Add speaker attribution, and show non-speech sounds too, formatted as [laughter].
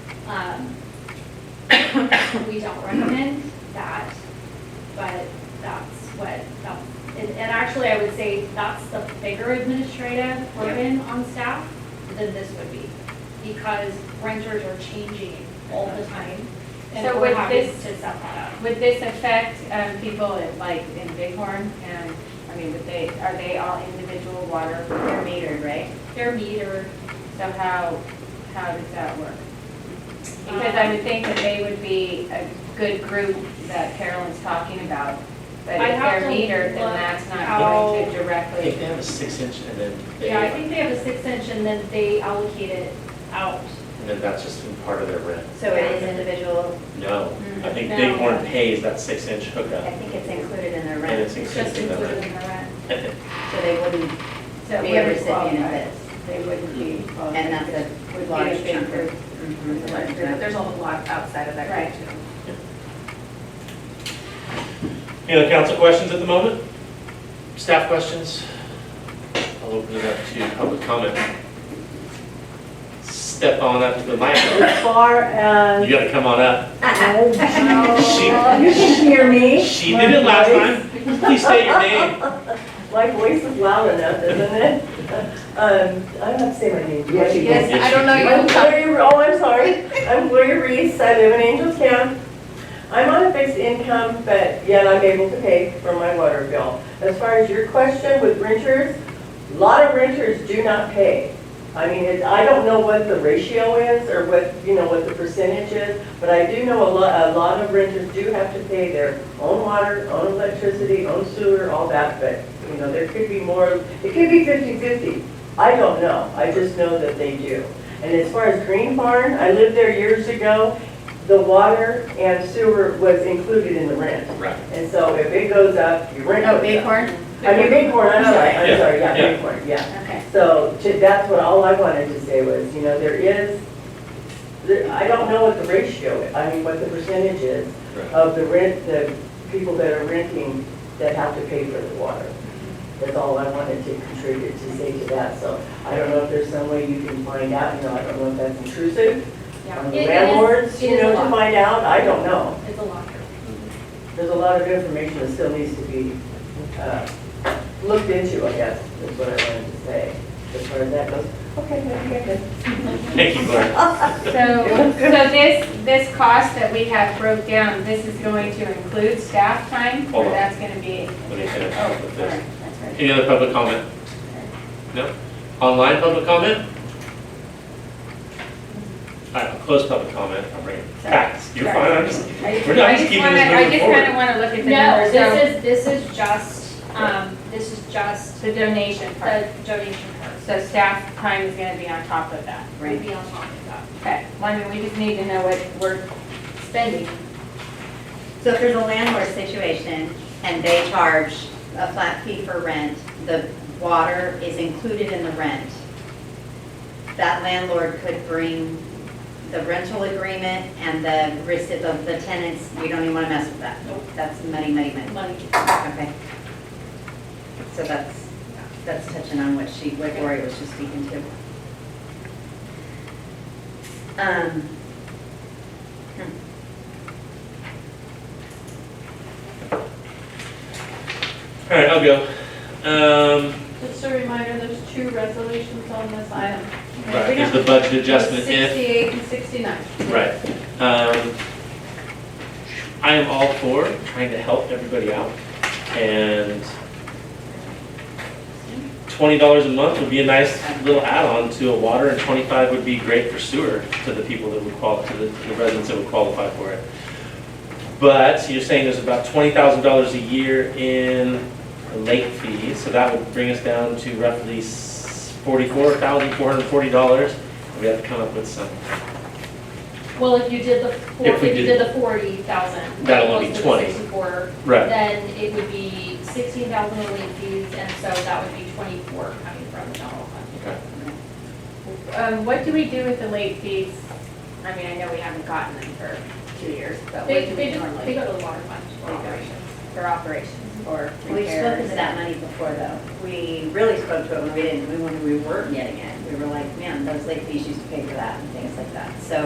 Speaker 1: Um, [coughs] We don't recommend that, but that's what, that- and, and actually, I would say that's the bigger administrative burden on staff than this would be, because renters are changing all the time, and
Speaker 2: So
Speaker 1: we're
Speaker 2: would
Speaker 1: having to
Speaker 2: this-
Speaker 1: set that up.
Speaker 2: Would this affect um, people in, like in Bighorn? And, I mean, would they, are they all individual water, they're metered, right?
Speaker 1: Their meter,
Speaker 2: So how, how does that work? Because I would think that they would be a good group that Carolyn's talking about. But
Speaker 1: I'd
Speaker 2: if
Speaker 1: have
Speaker 2: they're
Speaker 1: to
Speaker 2: metered, then
Speaker 1: look
Speaker 2: that's not going
Speaker 1: how-
Speaker 2: to
Speaker 3: I think
Speaker 2: directly.
Speaker 3: they have a six inch and then they,
Speaker 1: yeah, I
Speaker 3: and
Speaker 1: think they have a six inch, and then they allocate it out.
Speaker 3: then that's just been part of their rent.
Speaker 4: So it is individual,
Speaker 3: No, I think
Speaker 1: No.
Speaker 3: Bighorn pays that six inch
Speaker 4: I
Speaker 3: hookup
Speaker 4: think it's included in their
Speaker 3: and
Speaker 4: rent,
Speaker 3: it's
Speaker 1: It's just
Speaker 3: included in the
Speaker 1: included
Speaker 3: rent.
Speaker 1: in the rent.
Speaker 4: so they wouldn't
Speaker 2: So
Speaker 4: be a
Speaker 2: wouldn't
Speaker 4: recipient of
Speaker 2: qualify.
Speaker 4: this.
Speaker 2: They wouldn't be qualified.
Speaker 4: And that's a
Speaker 2: Would
Speaker 4: large
Speaker 2: be a big
Speaker 4: chunk
Speaker 2: group.
Speaker 4: of.
Speaker 5: But There's a whole lot outside of that group too.
Speaker 3: Any other council questions at the moment? Staff questions? I'll open it up to public comment. Step on up to the mic.
Speaker 6: As far
Speaker 3: You
Speaker 6: as,
Speaker 3: gotta come on up.
Speaker 6: oh,
Speaker 4: [laughs]
Speaker 3: She-
Speaker 6: you can hear me.
Speaker 3: She did it last time. Please state your name.
Speaker 6: My voice is loud enough, isn't it? [laughs] Um, I don't have to say my name. Yes, you
Speaker 3: Yes,
Speaker 5: Yes, I don't know,
Speaker 3: you
Speaker 6: I'm
Speaker 5: you
Speaker 6: Gloria, oh, I'm sorry. I'm Gloria Reese, I live in Angels Camp. I'm on a fixed income, but yet I'm able to pay for my water bill. As far as your question with renters, a lot of renters do not pay. I mean, it- I don't know what the ratio is or what, you know, what the percentage is, but I do know a lot, a lot of renters do have to pay their own water, own electricity, own sewer, all that, but, you know, there could be more, it could be 50/50. I don't know, I just know that they do. And as far as Green Barn, I lived there years ago, the water and sewer was included in the rent.
Speaker 3: Right.
Speaker 6: And so if it goes up, your rent goes up.
Speaker 5: Oh, Bighorn?
Speaker 6: I mean, Bighorn, I'm sorry,
Speaker 3: Yeah,
Speaker 6: I'm sorry,
Speaker 3: yeah.
Speaker 6: yeah, Bighorn, yeah.
Speaker 5: Okay.
Speaker 6: So to- that's what all I wanted to say was, you know, there is, there- I don't know what the ratio, is. I mean, what the percentage is
Speaker 3: Right.
Speaker 6: of the rent, the people that are renting that have to pay for the water. That's all I wanted to contribute to say to that. So I don't know if there's some way you can find out, you know, I don't know if that's intrusive
Speaker 1: Yeah,
Speaker 6: on
Speaker 1: It
Speaker 6: the
Speaker 1: is-
Speaker 6: landlords,
Speaker 1: it
Speaker 6: you
Speaker 1: is
Speaker 6: know,
Speaker 1: a
Speaker 6: to
Speaker 1: lot.
Speaker 6: find out. I don't know.
Speaker 1: It's a lot.
Speaker 6: There's a lot of information that still needs to be uh, looked into, I guess, is what I wanted to say. As far as that goes, okay, that'd be good.
Speaker 3: Thank you, Blair.
Speaker 2: So, so this, this cost that we have broke down, this is going to include staff time? Or
Speaker 3: Hold on.
Speaker 2: that's gonna be?
Speaker 3: Let me finish
Speaker 2: Oh,
Speaker 3: with
Speaker 2: all
Speaker 3: this.
Speaker 2: right, that's right.
Speaker 3: Any other public comment? No? Online public comment? All right, I'll close public comment. I'll bring it back. You're
Speaker 2: Sorry.
Speaker 3: fine. I'm just,
Speaker 2: I just
Speaker 3: We're not just keeping
Speaker 2: wanna,
Speaker 3: this
Speaker 2: I
Speaker 3: moving
Speaker 2: just
Speaker 3: forward.
Speaker 2: kinda wanna look at the
Speaker 1: No,
Speaker 2: numbers, so
Speaker 1: this is, this is just, um, this is just
Speaker 2: the donation part.
Speaker 1: the donation part.
Speaker 2: So staff time is gonna be on top of that,
Speaker 1: Would
Speaker 2: right?
Speaker 1: be on top of that.
Speaker 2: Okay, well, I mean, we just need to know what we're spending.
Speaker 4: So if there's a landlord situation and they charge a flat fee for rent, the water is included in the rent. That landlord could bring the rental agreement and the receipt of the tenants, we don't even want to mess with that.
Speaker 1: Nope.
Speaker 4: That's money, money, money.
Speaker 1: Money.
Speaker 4: Okay. So that's, that's touching on what she, what Lori was just speaking to. Um,
Speaker 3: all right, I'll go. Um,
Speaker 5: Just a reminder, there's two resolutions on this item.
Speaker 3: right, there's the budget adjustment if.
Speaker 5: Sixty-eight and sixty-nine.
Speaker 3: Right. Um, I am all for trying to help everybody out, and twenty dollars a month would be a nice little add-on to a water, and twenty-five would be great for sewer to the people that would qual, to the to the residents that would qualify for it. But you're saying there's about twenty thousand dollars a year in late fees, so that would bring us down to roughly forty-four thousand, four hundred and forty dollars. We have to come up with some.
Speaker 1: Well, if you did the, four-
Speaker 3: If
Speaker 1: if
Speaker 3: we
Speaker 1: you
Speaker 3: did-
Speaker 1: did the forty thousand.
Speaker 3: That'll only be 20. Right.
Speaker 1: Then it would be sixteen thousand in late fees, and so that would be twenty-four coming from the general fund.
Speaker 3: Okay.
Speaker 2: Um, what do we do with the late fees? I mean, I know we haven't gotten them for two years, but what
Speaker 1: They,
Speaker 2: do
Speaker 1: they
Speaker 2: we
Speaker 1: just, they
Speaker 2: normally?
Speaker 1: go to the water fund for
Speaker 2: Okay.
Speaker 1: operations.
Speaker 2: For operations, or
Speaker 4: We've spoken to
Speaker 2: repairs?
Speaker 4: that money before, though. We really spoke to it when we didn't, when we weren't getting it. We were like, man, those late fees used to pay for that and things like that. So